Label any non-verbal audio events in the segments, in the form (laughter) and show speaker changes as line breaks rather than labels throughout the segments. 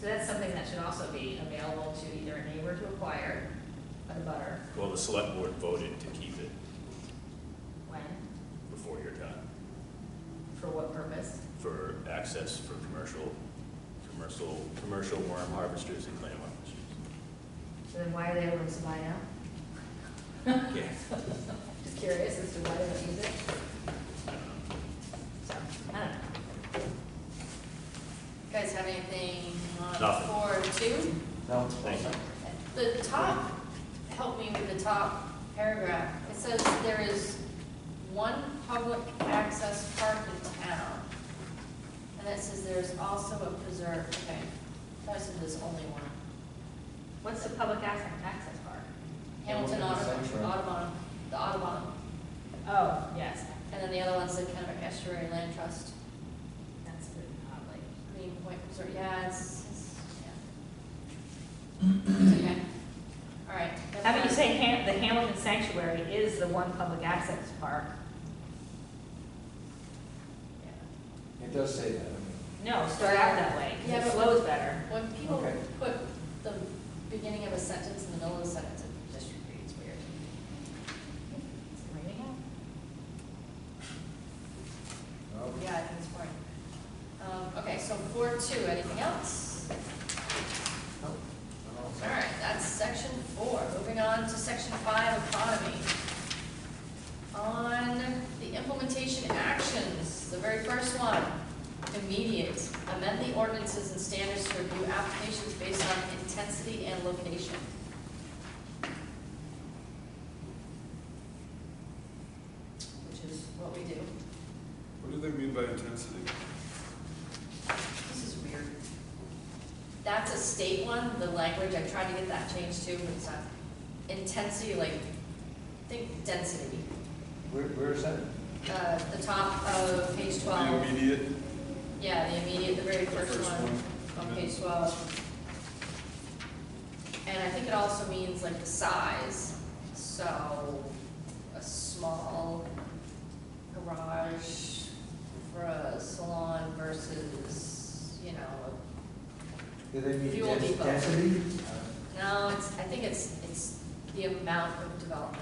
So that's something that should also be available to either a neighbor to acquire, a butter,
Well, the select board voted to keep it
when,
before your time
for what purpose?
for access for commercial, commercial, commercial worm harvesters and clam harvesters.
So then why are they able to buy now?
Yeah.
Just curious as to why they don't use it.
I don't know.
So, I don't know.
Guys have anything on
Nothing.
four two?
No,
Thank you.
The top, help me with the top paragraph. It says there is one public access park in town. And that says there's also a preserve, okay. So I said there's only one.
What's the public access, access park?
Hamilton
Yeah, we'll get the
Audubon,
sanctuary.
Audubon, the Audubon.
Oh, yes,
And then the other one's the kind of estuary land trust,
that's good, oddly.
Green Point Preserve, yeah, it's, it's, yeah. (clears throat) It's okay. All right. that's
How about you
fine.
say Ham, the Hamilton Sanctuary is the one public access park?
It does say that.
No, start out that way, 'cause
Yeah,
it
but-
flows better.
When people
Okay.
put the beginning of a sentence in the middle of a sentence, it just reads weird.
Is it raining out?
No.
Yeah, I think it's boring. Um, okay, so four two, anything else?
No.
All right, that's section four. Moving on to section five, economy. On the implementation actions, the very first one, immediate. Amend the ordinances and standards to review applications based on intensity and location. Which is what we do.
What do they mean by intensity?
This is weird. That's a state one, the language, I tried to get that changed too, but it's not. Intensity, like, think density,
Where, where is that?
uh, the top of page twelve.
The immediate,
Yeah, the immediate, the very
The
first
first
one,
one.
on page twelve. And I think it also means like the size, so a small garage for a salon versus, you know, a
Do they mean
Fuel
dens-
depot.
density? Uh,
No, it's, I think it's, it's the amount of development,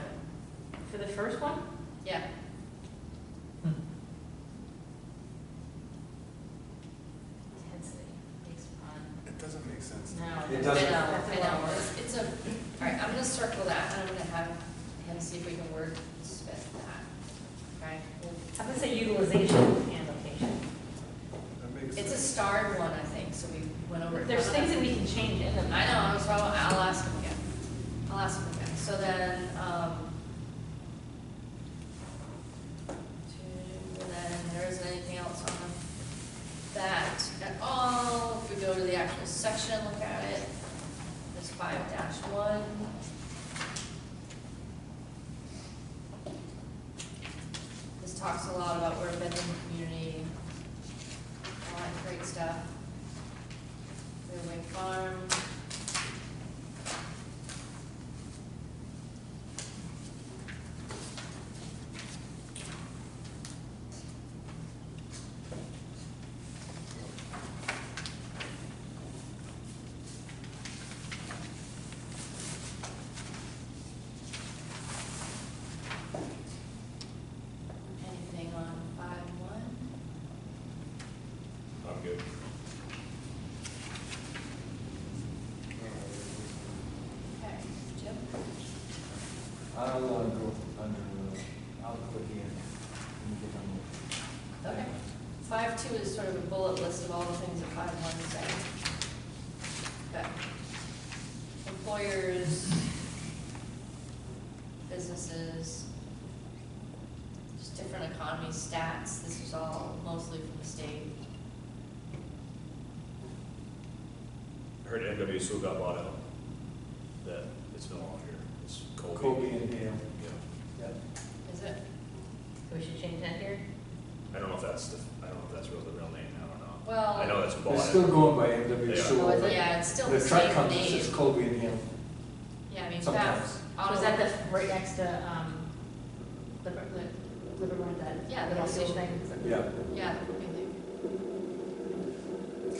For the first one?
yeah.
Intensity, based on,
it doesn't make sense.
no.
It
I know,
doesn't-
I know,
That's
it's, it's a, all right, I'm gonna circle that, and I'm gonna have him see if we can word spit that, okay?
a lot. How about say utilization and location?
That makes
It's a
sense.
starred one, I think, so we went over. it.
There's things that we can change in them.
I know, I was wrong, I'll ask him again, I'll ask him again, so then, um. two, And then there isn't anything else on that at all, if we go to the actual section and look at it, there's five dash one. This talks a lot about where Bedlam community, all that great stuff. Railway Farm. Anything on five one?
I'm good.
Okay, Jim?
I'll, uh, go under, uh, I'll click here. Let me get on the-
Okay. Five two is sort of a bullet list of all the things that five one is saying. Okay. Employers, businesses, just different economy stats, this is all mostly from the state.
I Heard NW Sue got bought out, that it's no longer, it's Colby.
Kobe and Hale.
Yeah.
Yep.
Is it?
So we should change that here?
I don't know if that's the, I don't know if that's real, the real name, I don't know.
Well.
I know it's
They're still
bought.
going by MW
They are.
Sewell. but
Oh, Yeah, it's still the
The truck
same
company
name.
says Kobe and Hale.
Yeah, I mean, that,
Sometimes.
Oh,
auto.
is that the, right next to, um, Liver- Liver- Livermore, that
Yeah, the
little
gas station.
thing?
Yeah.
Yeah, the company name.